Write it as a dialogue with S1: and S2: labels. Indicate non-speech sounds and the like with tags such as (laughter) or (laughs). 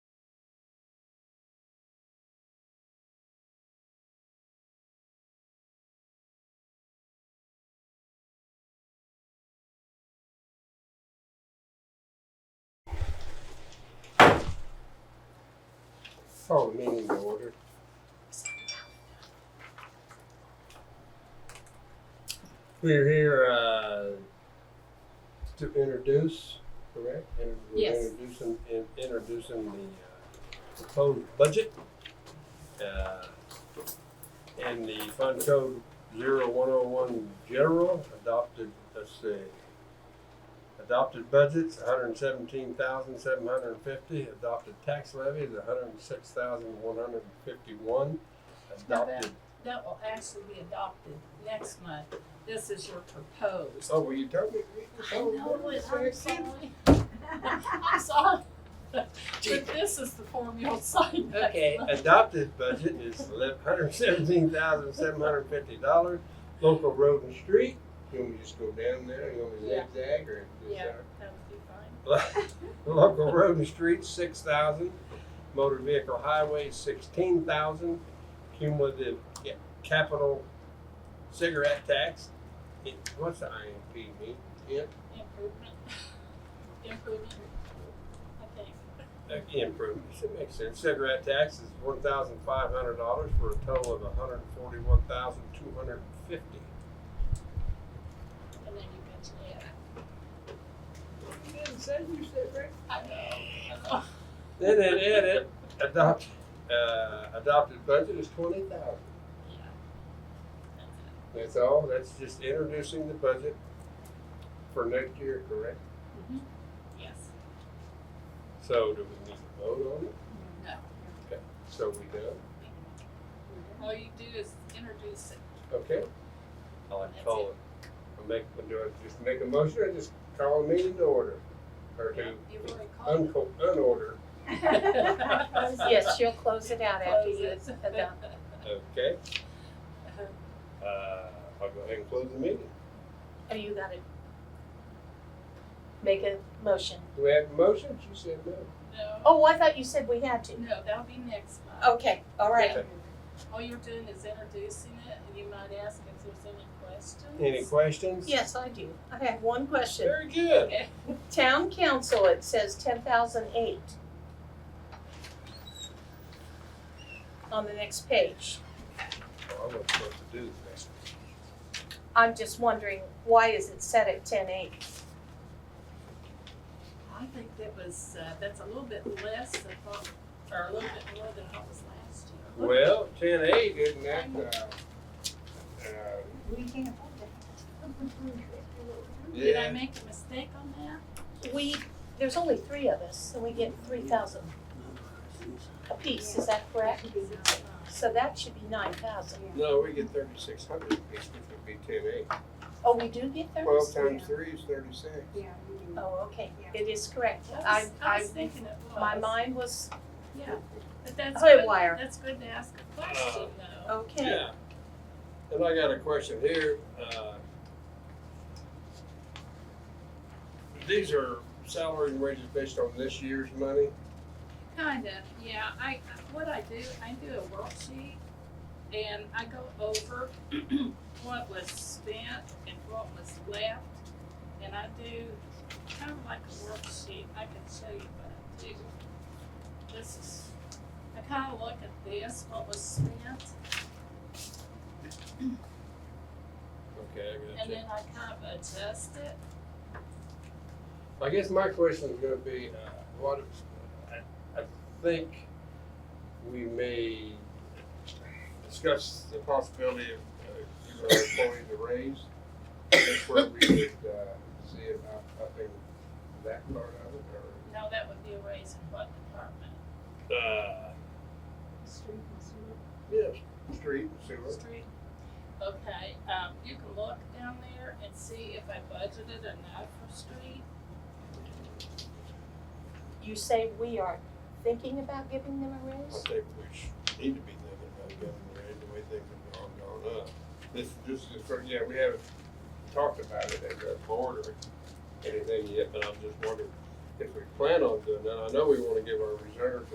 S1: Call Oh, the meeting to order. We're here, uh, to introduce, correct? And we're
S2: Yes.
S1: Introducing, in- introducing the uh, proposed budget. uh, And the fund code zero one oh one general adopted, let's see. Adopted budgets, hundred and seventeen thousand, seven hundred and fifty. Adopted tax levy is hundred and six thousand, one hundred and fifty-one.
S2: Not bad.
S1: Adopted,
S2: That will actually be adopted next month. This is your proposed.
S1: oh, well, you told me.
S2: I know it, Oh, I'm (laughs) sorry. I'm (laughs) sorry. But this is the form (laughs) you'll sign next
S1: Okay,
S2: month.
S1: adopted budget is hundred seventeen thousand seven hundred fifty dollars, local road and street. You want me to just go down there, you want me
S2: Yeah.
S1: to zigzag or? is
S2: Yeah,
S1: that-
S2: that would be fine.
S1: Local road and street, six thousand, motor vehicle highway, sixteen thousand, cumulative ca- capital cigarette tax. It- What's the IMP mean? Imp,
S2: Improvement. (laughs) Improvement, I think.
S1: uh, improvements, it makes sense. Cigarette tax is one thousand five hundred dollars for a total of hundred and forty-one thousand two hundred and fifty.
S2: And then you mentioned it.
S1: You didn't say you said right.
S2: I know, I know.
S1: Then it added, adopt, uh, adopted budget is twenty thousand.
S2: (laughs) Yeah. That's it.
S1: That's all, that's just introducing the budget for next year, correct?
S2: Mm-hmm. Yes.
S1: So do we need to vote on it?
S2: No.
S1: So we do,
S2: All you do is introduce it.
S1: okay? I'll have to call it. I'll make, do I just make a motion or just call a meeting to order? Or to
S2: You've already called (laughs) it.
S1: unco, unorder,
S3: Yes, she'll close it out after
S2: (laughs)
S3: you
S2: Close it.
S3: adopt.
S1: okay? Uh, I'll go ahead and close the meeting.
S3: Oh, you gotta make a motion.
S1: Do we have a motion? She said no.
S2: No.
S3: Oh, I thought you said we had to.
S2: No, that'll be next month.
S3: Okay, all right.
S1: Okay.
S2: All you're doing is introducing it, and you might ask if there's any questions.
S1: Any questions?
S3: Yes, I do. I have one question.
S1: Very good.
S3: Town council, it says ten thousand eight. On the next page.
S1: Oh, I wasn't supposed to do this.
S3: I'm just wondering, why is it set at ten eight?
S2: I think that was, uh, that's a little bit less than what, or a little bit more than what was last year.
S1: Well, ten eight, isn't that, uh, uh,
S3: We can't afford
S2: Did
S1: yeah,
S2: I make a mistake on that?
S3: that. We, there's only three of us, and we get three thousand apiece, is that correct? So that should be nine thousand.
S1: no, we get thirty-six hundred, which would be ten eight.
S3: Oh, we do get those?
S1: Twelve times three is thirty-six.
S4: Yeah, we do.
S3: Oh, okay, it is correct.
S2: I
S3: I,
S2: was, I
S3: I,
S2: was thinking it was.
S3: my mind was,
S2: Yeah, but that's
S3: Hoy
S2: good,
S3: wire.
S2: that's good to ask a question though.
S3: okay,
S1: Yeah. And I got a question here, uh. These are salaries and wages based on this year's money?
S2: Kinda, yeah, I, what I do, I do a worksheet, and I go over (clears throat) what was spent and what was left, and I do kind of like a worksheet, I can show you what I do. This is, I kinda look at this, what was spent,
S1: Okay, I got
S2: and
S1: you.
S2: then I kind of adjust it.
S1: I guess my question is gonna be, uh, what, if- I, I think we may discuss the possibility of uh, giving our employees a raise. That's where we could, uh, see it, I, I think, that part of it, or,
S2: No, that would be a raise in what department?
S1: uh,
S4: Street and sewer.
S1: yeah, street, sewer.
S2: Street. Okay, um, you can look down there and see if I budgeted enough for street.
S3: you say we are thinking about giving them a
S1: I
S3: raise?
S1: think we should, need to be thinking about getting a raise, the way things have gone, gone up. This, this is, for- yeah, we haven't talked about it at the board or anything yet, but I'm just wondering if we plan on doing that. I know we wanna give our reserves